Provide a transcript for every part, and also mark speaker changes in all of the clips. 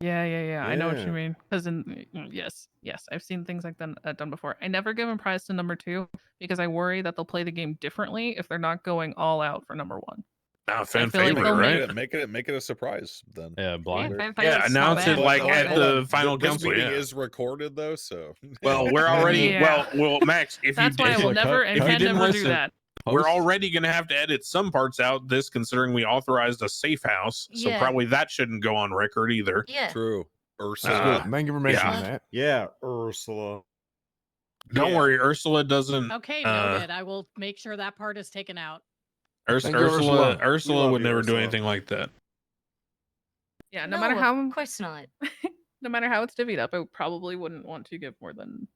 Speaker 1: Yeah, yeah, yeah. I know what you
Speaker 2: Yeah.
Speaker 1: mean. Because in mm, yes, yes, I've seen things like that, that done before. I never give them prize to number two because I worry that they'll play the game differently if they're not going all out for number one.
Speaker 3: Not
Speaker 1: I
Speaker 3: fan
Speaker 1: feel like
Speaker 3: favorite,
Speaker 1: they'll
Speaker 2: Make
Speaker 1: make
Speaker 3: right?
Speaker 2: it, make it, make it a surprise then.
Speaker 4: Yeah,
Speaker 5: Yeah,
Speaker 4: blind.
Speaker 5: fan
Speaker 3: Yeah,
Speaker 5: favorites is not
Speaker 3: announce it
Speaker 5: bad.
Speaker 3: like
Speaker 5: Not
Speaker 2: hold on,
Speaker 3: at
Speaker 5: bad.
Speaker 2: hold on.
Speaker 3: the final
Speaker 2: Th- this
Speaker 3: council.
Speaker 2: meeting
Speaker 3: Yeah.
Speaker 2: is recorded though, so
Speaker 3: Well, we're already
Speaker 1: Yeah.
Speaker 3: well, well, Max. If
Speaker 1: That's
Speaker 3: you
Speaker 1: why I
Speaker 3: did,
Speaker 1: will
Speaker 4: Look, cut-
Speaker 1: never
Speaker 4: if
Speaker 1: and
Speaker 4: you
Speaker 1: can
Speaker 4: didn't
Speaker 1: never do
Speaker 4: listen-
Speaker 1: that.
Speaker 3: we're
Speaker 4: Post-
Speaker 3: already going to have to edit some parts out. This, considering we authorized a safe house, so
Speaker 5: Yeah.
Speaker 3: probably that shouldn't go on record either.
Speaker 5: Yeah.
Speaker 2: true.
Speaker 6: That's
Speaker 2: Ursula.
Speaker 3: Uh,
Speaker 6: good. Thank you for mentioning
Speaker 5: Uh-huh. yeah.
Speaker 6: that.
Speaker 7: Yeah, Ursula.
Speaker 3: Don't
Speaker 2: Yeah.
Speaker 3: worry, Ursula doesn't.
Speaker 8: Okay,
Speaker 3: Uh,
Speaker 8: noted. I will make sure that part is taken out.
Speaker 3: Urs-
Speaker 6: Thank you,
Speaker 3: Ursula,
Speaker 6: Ursula.
Speaker 3: Ursula,
Speaker 2: We love
Speaker 3: would
Speaker 2: you,
Speaker 3: never do
Speaker 2: Ursula.
Speaker 3: anything like that.
Speaker 1: Yeah, no, matter
Speaker 5: No,
Speaker 1: how
Speaker 5: Of course not.
Speaker 1: no matter how it's divvied up, I probably wouldn't want to give more than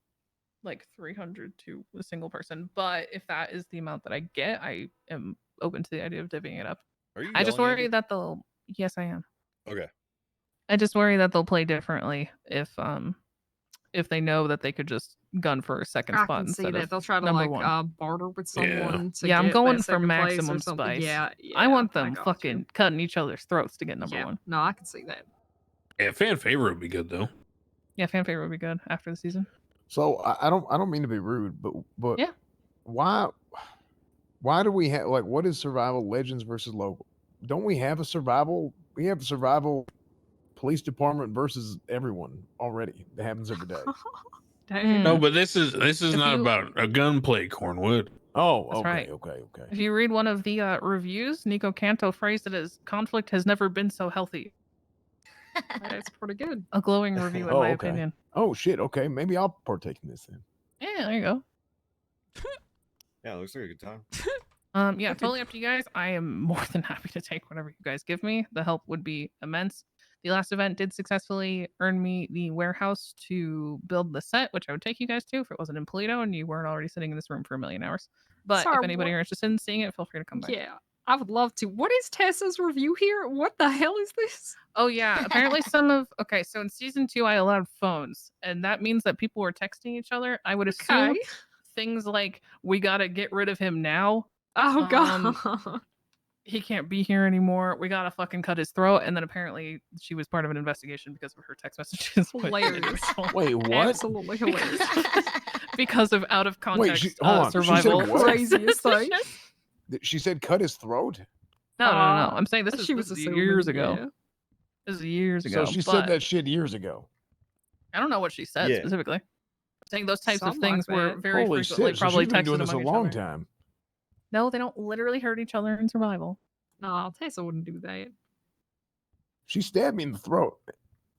Speaker 1: like 300 to a single person. But if that is the amount that I get, I am open to the idea of divvying it up.
Speaker 2: Are you
Speaker 1: I just
Speaker 2: yelling at
Speaker 1: worry
Speaker 2: me?
Speaker 1: that they'll. Yes, I am.
Speaker 2: Okay.
Speaker 1: I just worry that they'll play differently if um if they know that they could just gun for a second
Speaker 9: I
Speaker 1: spot
Speaker 9: can see
Speaker 1: instead
Speaker 9: that
Speaker 1: of
Speaker 9: they'll try to
Speaker 1: number
Speaker 9: like
Speaker 1: one.
Speaker 9: uh, barter with someone.
Speaker 3: Yeah.
Speaker 9: to
Speaker 1: Yeah, I'm
Speaker 9: get
Speaker 1: going
Speaker 9: that
Speaker 1: for
Speaker 9: second place or
Speaker 1: maximum
Speaker 9: something.
Speaker 1: spice.
Speaker 9: Yeah,
Speaker 1: I
Speaker 9: yeah,
Speaker 1: want
Speaker 9: I
Speaker 1: them
Speaker 9: got you.
Speaker 1: fucking cutting each other's throats to get number
Speaker 9: Yeah,
Speaker 1: one.
Speaker 9: No, I can see that.
Speaker 3: Yeah, fan favorite would be good though.
Speaker 1: Yeah, fan favorite would be good after the season.
Speaker 6: So I, I don't I don't mean to be rude, but but
Speaker 1: Yeah.
Speaker 6: why why do we have like what is survival legends versus local? Don't we have a survival? We have a survival police department versus everyone already. That happens every day.
Speaker 9: Damn.
Speaker 1: Mm.
Speaker 3: No, but this is this is
Speaker 1: If
Speaker 3: not
Speaker 1: you-
Speaker 3: about a gunplay, Cornwood.
Speaker 6: Oh,
Speaker 1: That's
Speaker 6: okay,
Speaker 1: right.
Speaker 6: okay, okay.
Speaker 1: If you read one of the uh, reviews, Nico Canto phrased it as conflict has never been so healthy.
Speaker 9: That's pretty good.
Speaker 1: A glowing review, in
Speaker 6: Oh,
Speaker 1: my
Speaker 6: okay.
Speaker 1: opinion.
Speaker 6: Oh shit, okay. Maybe I'll partake in this then.
Speaker 1: Yeah, there you go.
Speaker 7: Yeah, looks like a good time.
Speaker 5: Oh,
Speaker 1: Um, yeah, totally up to you guys. I am more than happy to take whatever you guys give me. The help would be immense. The last event did successfully earn me the warehouse to build the set, which I would take you guys to if it wasn't in Polito and you weren't already sitting in this room for a million hours. But
Speaker 9: Sorry,
Speaker 1: if anybody
Speaker 9: what?
Speaker 1: are interested in seeing it, feel free to come back.
Speaker 9: Yeah, I would love to. What is Tessa's review here? What the hell is this?
Speaker 1: Oh yeah. Apparently some of okay, so in season two I allowed phones, and that means that people were texting each other. I would assume
Speaker 9: Okay.
Speaker 1: things like we gotta get rid of him now
Speaker 9: Oh
Speaker 1: Um,
Speaker 9: god.
Speaker 1: he can't be here anymore. We gotta fucking cut his throat. And then apparently she was part of an investigation because of her text messages. with
Speaker 9: Hilarious.
Speaker 1: individual-
Speaker 6: Wait, what?
Speaker 9: Absolutely hilarious.
Speaker 1: because, because of out of
Speaker 6: Wait,
Speaker 1: context
Speaker 6: she-
Speaker 1: uh,
Speaker 6: hold on, she said
Speaker 1: survival.
Speaker 6: what?
Speaker 9: Craziest thing.
Speaker 6: Th- She said cut his throat.
Speaker 1: No, no, no,
Speaker 9: Uh,
Speaker 1: no. I'm saying this is,
Speaker 9: she
Speaker 1: this
Speaker 9: was
Speaker 1: is
Speaker 9: assuming,
Speaker 1: years ago.
Speaker 9: yeah.
Speaker 1: This is years ago.
Speaker 6: So she
Speaker 1: but
Speaker 6: said that shit years ago.
Speaker 1: I don't know what she said
Speaker 7: Yeah.
Speaker 1: specifically. I'm saying those types of
Speaker 9: Something like
Speaker 1: things were
Speaker 9: that.
Speaker 1: very
Speaker 6: Holy
Speaker 1: frequently
Speaker 6: shit! so
Speaker 1: probably
Speaker 6: she's been
Speaker 1: texted
Speaker 6: doing this a
Speaker 1: among each
Speaker 6: long
Speaker 1: other.
Speaker 6: time.
Speaker 1: No, they don't literally hurt each other in survival.
Speaker 9: No, Tessa wouldn't do that.
Speaker 6: She stabbed me in the throat,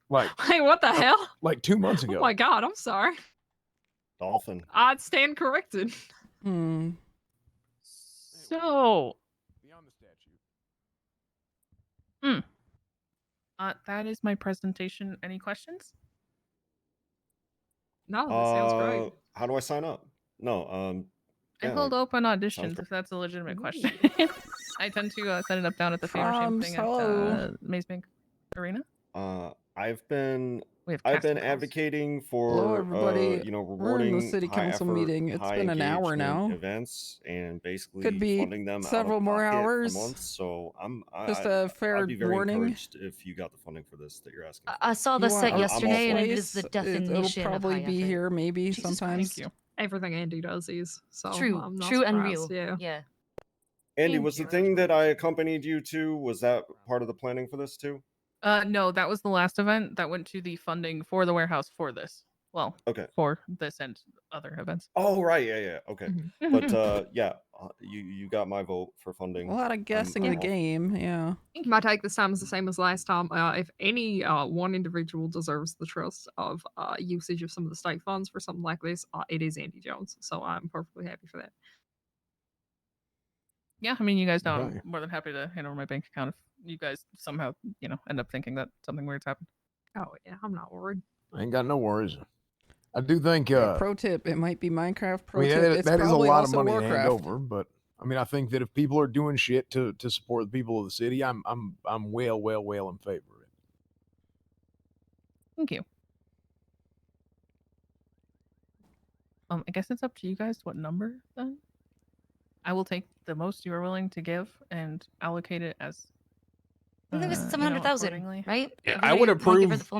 Speaker 6: like
Speaker 9: Wait, what the hell?
Speaker 6: like two months
Speaker 9: Oh
Speaker 6: ago.
Speaker 9: my god, I'm sorry.
Speaker 7: Dolphin.
Speaker 9: I'd stand corrected.
Speaker 5: Hmm.
Speaker 1: So
Speaker 6: Beyond the statue.
Speaker 1: uh, that is my presentation. Any questions?
Speaker 5: oh,
Speaker 9: No, that sounds
Speaker 7: Uh,
Speaker 9: great.
Speaker 7: How do I sign up? No, um,
Speaker 1: I
Speaker 7: yeah,
Speaker 1: hold open auditions
Speaker 7: great.
Speaker 1: if that's a legitimate
Speaker 9: Ooh.
Speaker 1: question. I tend to uh, set it up down at the Famer Shame
Speaker 5: From
Speaker 1: thing
Speaker 5: Seoul.
Speaker 1: at uh, Maze Bank Arena.
Speaker 7: uh, I've been
Speaker 1: We have
Speaker 7: I've
Speaker 1: casting
Speaker 7: been
Speaker 1: calls.
Speaker 7: advocating for
Speaker 5: everybody.
Speaker 7: Uh, you know
Speaker 5: We're in
Speaker 7: rewarding
Speaker 5: the city
Speaker 7: high
Speaker 5: council
Speaker 7: effort,
Speaker 5: meeting. It's
Speaker 7: high
Speaker 5: been an hour
Speaker 7: engagement
Speaker 5: now.
Speaker 7: Events and basically
Speaker 5: be
Speaker 7: funding them out of
Speaker 5: several more
Speaker 7: pocket per
Speaker 5: hours.
Speaker 7: month, so I'm I,
Speaker 5: Just
Speaker 7: I-
Speaker 5: a fair
Speaker 7: I'd be very
Speaker 5: warning.
Speaker 7: encouraged if you got the funding for this that you're asking.
Speaker 5: Uh,
Speaker 7: for.
Speaker 5: uh,
Speaker 7: I
Speaker 5: You I
Speaker 7: saw
Speaker 5: saw
Speaker 7: the
Speaker 5: the
Speaker 7: set
Speaker 5: set
Speaker 7: yesterday,
Speaker 5: yesterday,
Speaker 7: and
Speaker 5: and
Speaker 7: it
Speaker 5: it
Speaker 7: is
Speaker 5: is
Speaker 7: the
Speaker 5: It'll definition probably be here, maybe
Speaker 1: Jesus,
Speaker 5: sometimes.
Speaker 1: Thank you.
Speaker 9: Everything Andy does is so
Speaker 5: True,
Speaker 9: oh I'm not
Speaker 5: true and real.
Speaker 9: surprised, Yeah.
Speaker 5: Yeah.
Speaker 7: Andy,
Speaker 1: Thank
Speaker 7: was the
Speaker 1: you.
Speaker 7: thing that I accompanied you to was that part of the planning for this too?
Speaker 1: Uh, no, that was the last event that went to the funding for the warehouse for this. Well,
Speaker 7: Okay.
Speaker 1: for this and other events.
Speaker 7: Oh right, yeah, yeah, okay. But uh, yeah, uh, you you got my vote for funding.
Speaker 5: A lot
Speaker 6: Um,
Speaker 5: of guessing the
Speaker 7: all-
Speaker 5: game. Yeah.
Speaker 9: My take this time is the same as last time. Uh, if any uh, one individual deserves the trust of uh, usage of some of the state funds for something like this, uh, it is Andy Jones. So I'm perfectly happy for that.
Speaker 1: Yeah, I mean, you guys know I'm
Speaker 6: Right.
Speaker 1: more than happy to hand over my bank account if you guys somehow, you know, end up thinking that something weird's happened.
Speaker 9: Oh yeah, I'm not worried.
Speaker 6: I ain't got no worries. I do think
Speaker 5: Hey,
Speaker 6: uh,
Speaker 5: pro tip: It might be Minecraft.
Speaker 6: I
Speaker 5: Pro
Speaker 6: mean,
Speaker 5: tip:
Speaker 6: that,
Speaker 5: It's
Speaker 6: that is a
Speaker 5: probably
Speaker 6: lot of
Speaker 5: also
Speaker 6: money to hand
Speaker 5: Warcraft.
Speaker 6: over, but I mean, I think that if people are doing shit to to support the people of the city, I'm I'm I'm well, well, well in favor of it.
Speaker 1: Thank you. Um, I guess it's up to you guys what number then. I will take the most you are willing to give and allocate it as.
Speaker 5: I
Speaker 1: uh,
Speaker 5: think it was
Speaker 1: you know,
Speaker 5: some 100,000,
Speaker 1: accordingly.
Speaker 5: right?
Speaker 3: Yeah, I would
Speaker 5: Everybody wanna give her
Speaker 3: approve
Speaker 5: the full